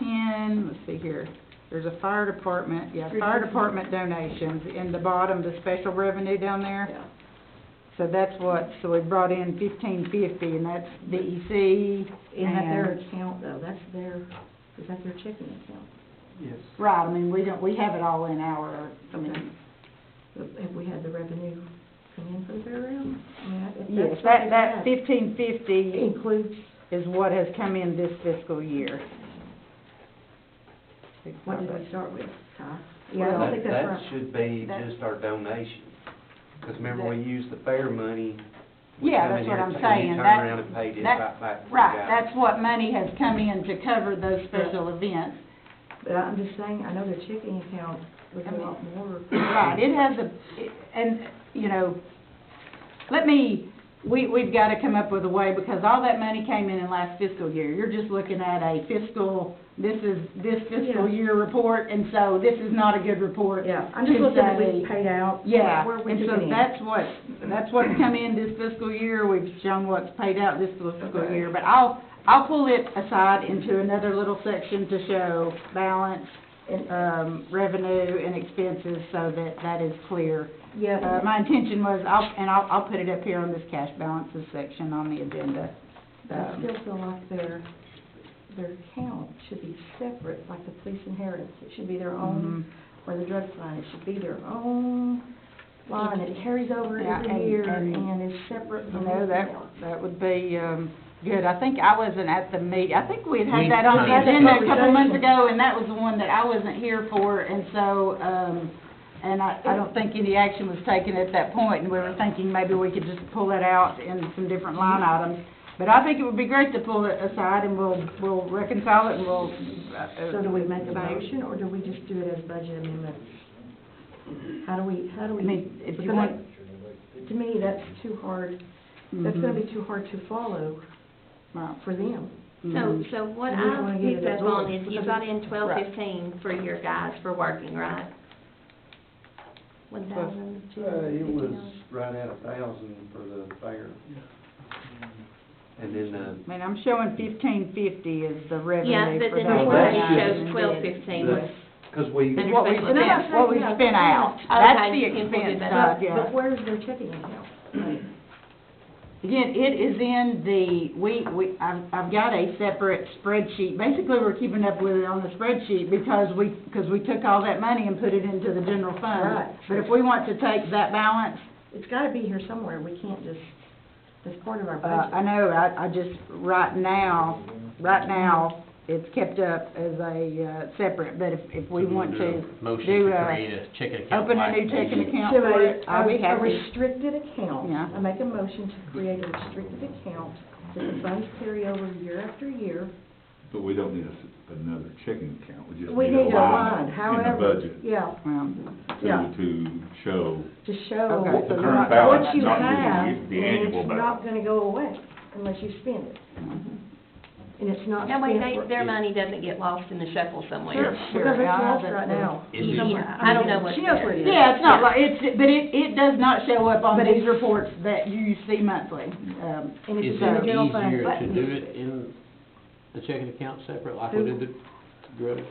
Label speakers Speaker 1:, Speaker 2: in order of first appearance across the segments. Speaker 1: donation, let's see here, there's a fire department, yeah,
Speaker 2: Three
Speaker 1: fire
Speaker 2: fifty.
Speaker 1: department donations in the bottom, the special revenue down there.
Speaker 2: Yeah.
Speaker 1: So that's what, so we brought in fifteen fifty, and that's DEC
Speaker 2: Is that their
Speaker 1: and,
Speaker 2: account though? That's their, is that their checking account?
Speaker 3: Yes.
Speaker 1: right, I mean, we don't, we have it all in our, I mean,
Speaker 2: But Have we had the revenue come in from their realm? I mean, I- if that's
Speaker 1: yes,
Speaker 2: what
Speaker 1: that,
Speaker 2: they
Speaker 1: that
Speaker 2: had,
Speaker 1: fifteen
Speaker 2: it
Speaker 1: fifty
Speaker 2: Includes
Speaker 1: is what has come in this fiscal year.
Speaker 2: What did we start with, Ty? Yeah, I don't
Speaker 3: That,
Speaker 2: think that's
Speaker 3: that
Speaker 2: right.
Speaker 3: should be
Speaker 1: That-
Speaker 3: just our donation, because remember, we used the fair money. we
Speaker 1: Yeah,
Speaker 3: come
Speaker 1: that's
Speaker 3: in
Speaker 1: what
Speaker 3: here
Speaker 1: I'm
Speaker 3: to- and
Speaker 1: saying,
Speaker 3: you Turn
Speaker 1: that-
Speaker 3: around and paid it
Speaker 1: that-
Speaker 3: right back to the
Speaker 1: Right,
Speaker 3: guy.
Speaker 1: that's what money has come in to cover those special events.
Speaker 2: But I'm just saying, I know their checking account was
Speaker 1: I
Speaker 2: a
Speaker 1: mean-
Speaker 2: lot more.
Speaker 1: Right, it has a, it- and, you know, let me, we, we've got to come up with a way, because all that money came in in last fiscal year. You're just looking at a fiscal, this is, this fiscal
Speaker 2: Yeah.
Speaker 1: year report, and so this is not a good report.
Speaker 2: Yeah, I'm just
Speaker 1: to
Speaker 2: looking at what
Speaker 1: say-
Speaker 2: we paid out.
Speaker 1: Yeah,
Speaker 2: Where we
Speaker 1: and
Speaker 2: took
Speaker 1: so
Speaker 2: it in.
Speaker 1: that's what, that's what's come in this fiscal year, we've shown what's paid out this fiscal
Speaker 2: Okay.
Speaker 1: year, but I'll, I'll pull it aside into another little section to show balance,
Speaker 2: And, uh,
Speaker 1: um, revenue and expenses, so that that is clear. Uh,
Speaker 2: Yeah,
Speaker 1: my intention was, I'll, and I'll, I'll put it up here on this cash balances section on the agenda.
Speaker 2: I
Speaker 1: Um,
Speaker 2: still feel like their, their account should be separate, like the police inheritance. It should be their own,
Speaker 1: mhm.
Speaker 2: or the drug fund. It should be their own line. It carries over
Speaker 1: Yeah, and-
Speaker 2: every year
Speaker 1: and-
Speaker 2: and is separate
Speaker 1: You
Speaker 2: from
Speaker 1: know, that,
Speaker 2: everything else.
Speaker 1: that would be, um, good. I think I wasn't at the meet, I think we'd had
Speaker 3: We-
Speaker 1: that on the
Speaker 2: That's a
Speaker 1: agenda a couple
Speaker 2: conversation.
Speaker 1: months ago, and that was the one that I wasn't here for, and so, um, and I, I don't think any action was taken at that point, and we were thinking maybe we could just pull it out in some different line items. But I think it would be great to pull it aside, and we'll, we'll reconcile it, and we'll. uh,
Speaker 2: So do we make a
Speaker 1: uh,
Speaker 2: motion, or do we just do it as budget amendments? How do we, how do
Speaker 1: I
Speaker 2: we?
Speaker 1: mean, if you
Speaker 2: because
Speaker 1: want.
Speaker 2: I- To me, that's too hard,
Speaker 1: Mm-hmm.
Speaker 2: that's gonna be too hard to follow
Speaker 1: Right.
Speaker 2: for them.
Speaker 1: Mm-hmm.
Speaker 4: So, so what
Speaker 2: We just wanna
Speaker 4: I
Speaker 2: get it
Speaker 4: picked up
Speaker 2: over
Speaker 4: on
Speaker 2: with
Speaker 4: is you
Speaker 2: because
Speaker 4: got in twelve
Speaker 1: Right.
Speaker 4: fifteen for your guys for working, right? One thousand two
Speaker 3: Uh,
Speaker 4: hundred
Speaker 3: it
Speaker 4: fifty
Speaker 3: was
Speaker 4: dollars.
Speaker 3: right at a thousand for the fair. And then, uh,
Speaker 1: I mean, I'm showing fifteen fifty is the
Speaker 4: Yeah,
Speaker 1: revenue
Speaker 4: but
Speaker 1: for
Speaker 4: then
Speaker 1: that
Speaker 4: the
Speaker 1: line
Speaker 3: Well, that's
Speaker 4: one
Speaker 3: just-
Speaker 1: item, and
Speaker 4: shows
Speaker 1: then-
Speaker 4: twelve fifteen
Speaker 3: The-
Speaker 4: was,
Speaker 3: because we,
Speaker 4: And
Speaker 1: What we
Speaker 4: Special events.
Speaker 1: spent, what we spent out,
Speaker 4: Okay,
Speaker 1: that's the
Speaker 4: people did
Speaker 1: expense
Speaker 4: that.
Speaker 1: side,
Speaker 2: But-
Speaker 1: Uh, yeah.
Speaker 2: But where's their checking account?
Speaker 1: Again, it is in the, we, we, I've, I've got a separate spreadsheet, basically, we're keeping up with it on the spreadsheet because we, because we took all that money and put it into the general
Speaker 2: Right.
Speaker 1: fund. But if we want to take that balance,
Speaker 2: It's gotta be here somewhere, we can't just, that's part of our
Speaker 1: Uh,
Speaker 2: budget.
Speaker 1: I know, I, I just, right now, right now, it's kept up as a, uh, separate, but if, if we
Speaker 5: So we'll
Speaker 1: want
Speaker 5: do
Speaker 1: to
Speaker 5: a Motion
Speaker 1: do,
Speaker 5: to
Speaker 1: uh,
Speaker 5: create a checking account.
Speaker 1: open a
Speaker 5: like
Speaker 1: new
Speaker 5: we
Speaker 1: checking
Speaker 5: did.
Speaker 1: account
Speaker 2: To
Speaker 1: for it,
Speaker 2: a-
Speaker 1: I'll be
Speaker 2: a- A
Speaker 1: happy.
Speaker 2: restricted account.
Speaker 1: Yeah.
Speaker 2: I make a motion to create a restricted account that the funds carry over year after year.
Speaker 6: But we don't need a s- another checking account, we just
Speaker 2: We
Speaker 6: need a
Speaker 2: need a
Speaker 6: line
Speaker 2: line,
Speaker 6: in the
Speaker 2: however,
Speaker 6: budget
Speaker 2: yeah,
Speaker 1: Well,
Speaker 2: yeah.
Speaker 6: to, to show
Speaker 2: to show.
Speaker 1: Okay.
Speaker 6: what the
Speaker 1: so
Speaker 6: current
Speaker 1: not-
Speaker 6: balance,
Speaker 2: What you
Speaker 6: not
Speaker 2: have,
Speaker 6: the,
Speaker 2: and
Speaker 6: the annual
Speaker 2: it's not
Speaker 6: balance.
Speaker 2: gonna go away unless you spend it. And it's not
Speaker 4: that
Speaker 2: spent.
Speaker 4: way they, their
Speaker 6: Yeah.
Speaker 4: money doesn't get lost in the shuffle somewhere.
Speaker 2: Sure, Because it's lost right now.
Speaker 3: Is it-
Speaker 2: somewhere.
Speaker 4: I don't know what's
Speaker 2: She knows
Speaker 4: there.
Speaker 2: where it is.
Speaker 1: Yeah, it's not like, it's, but it, it does not show up on
Speaker 2: But
Speaker 1: these
Speaker 2: it's-
Speaker 1: reports that you see monthly. Um,
Speaker 2: And it's
Speaker 5: Is
Speaker 2: in the
Speaker 5: it
Speaker 2: general fund.
Speaker 5: easier to
Speaker 2: but-
Speaker 5: do it in the checking account separate, like we did the drugs?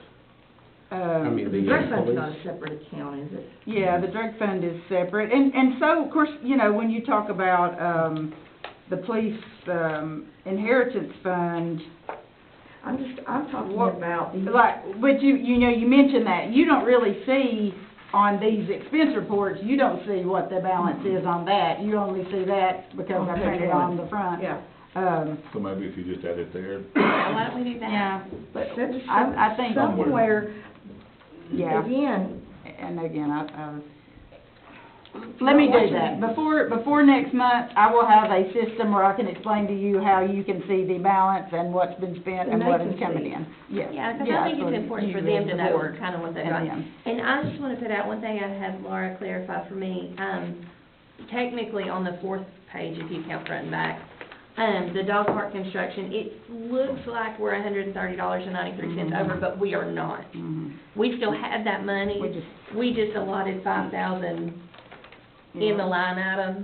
Speaker 5: I mean,
Speaker 1: um,
Speaker 2: The
Speaker 5: the
Speaker 2: drug
Speaker 5: uh,
Speaker 2: fund's not
Speaker 5: police?
Speaker 2: a separate account, is it?
Speaker 1: yeah, the drug fund is separate, and, and so, of course, you know, when you talk about, um, the police, um, inheritance fund,
Speaker 2: I'm just, I'm talking
Speaker 1: What-
Speaker 2: about the.
Speaker 1: Like, but you, you know, you mentioned that, you don't really see on these expense reports, you don't see what the balance is on that. You only see that because I
Speaker 2: On page
Speaker 1: printed it
Speaker 2: one.
Speaker 1: on the front.
Speaker 2: Oh, Yeah,
Speaker 1: Um,
Speaker 6: So maybe if you just add it there,
Speaker 4: Why don't we do that?
Speaker 1: yeah,
Speaker 2: but that's just some-
Speaker 1: I, I think,
Speaker 2: somewhere,
Speaker 1: yeah,
Speaker 2: again,
Speaker 1: and again, I, I was, let me do that. Before, before next month, I will have a system where I can explain to you how you can see the balance and what's been spent and
Speaker 2: And they
Speaker 1: what
Speaker 2: can
Speaker 1: is coming
Speaker 2: see.
Speaker 1: in. Yes.
Speaker 4: Yeah, because I think
Speaker 1: so
Speaker 4: it's important
Speaker 1: you
Speaker 4: for
Speaker 1: as
Speaker 4: them to
Speaker 1: the
Speaker 4: know
Speaker 1: board
Speaker 4: kind of what they got.
Speaker 1: And them.
Speaker 4: And I just want to put out one thing I had Laura clarify for me. Um, technically, on the fourth page, if you count front and back, um, the dog park construction, it looks like we're hundred and thirty dollars and ninety-three cents over, but we are not.
Speaker 1: Mhm.
Speaker 4: We still have that money.
Speaker 1: We just,
Speaker 4: We just allotted five thousand in the line item.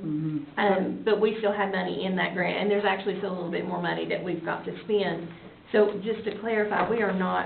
Speaker 1: Mhm.
Speaker 4: Um, but we still have money in that grant, and there's actually still a little bit more money that we've got to spend. So just to clarify, we are not